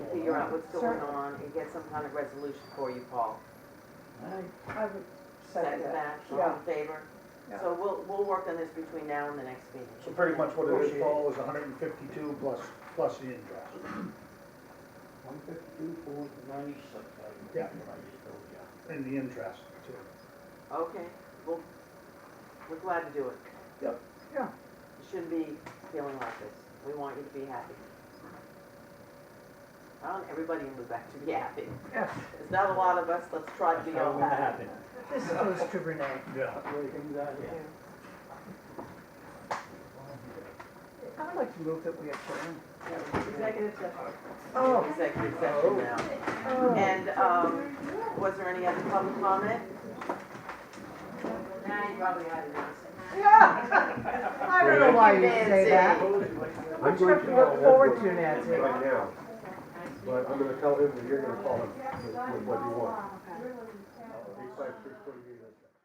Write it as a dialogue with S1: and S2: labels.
S1: figure out what's
S2: Sure.
S1: going on and get some kind of resolution for you, Paul.
S2: I would
S1: Second
S2: second that.
S1: that, all
S2: Yeah.
S1: in favor?
S2: Yeah.
S1: So we'll, we'll work on this between now and the next meeting.
S3: So pretty much what it is, Paul, is hundred and fifty-two plus, plus the interest.
S4: One fifty-two, four ninety-six, I think.
S3: Yeah.
S4: what I just told you.
S3: And the interest too.
S1: Okay, well, we're glad to do it.
S3: Yep. Yeah.
S1: You shouldn't be feeling like this. We want you to be happy. I want everybody in Lubec to be happy.
S2: Yes.
S1: There's not a lot of us, let's try to be all happy.
S2: This goes to Renee.
S3: Yeah.
S4: Everything's out here.
S2: I'd like to move that we adjourn.
S1: Executive session.
S2: Oh.
S1: Executive session now. And, um, was there any other public comment?
S5: Nah, you probably ought to know.
S2: Yeah. I don't know why you say that.
S6: I'm
S2: What you
S6: going
S2: have
S6: to
S2: to
S6: call
S2: look forward to,
S6: Edward
S2: Nancy?
S6: right now, but I'm gonna tell him that you're gonna call him with with what you want. He said, "Please put it in."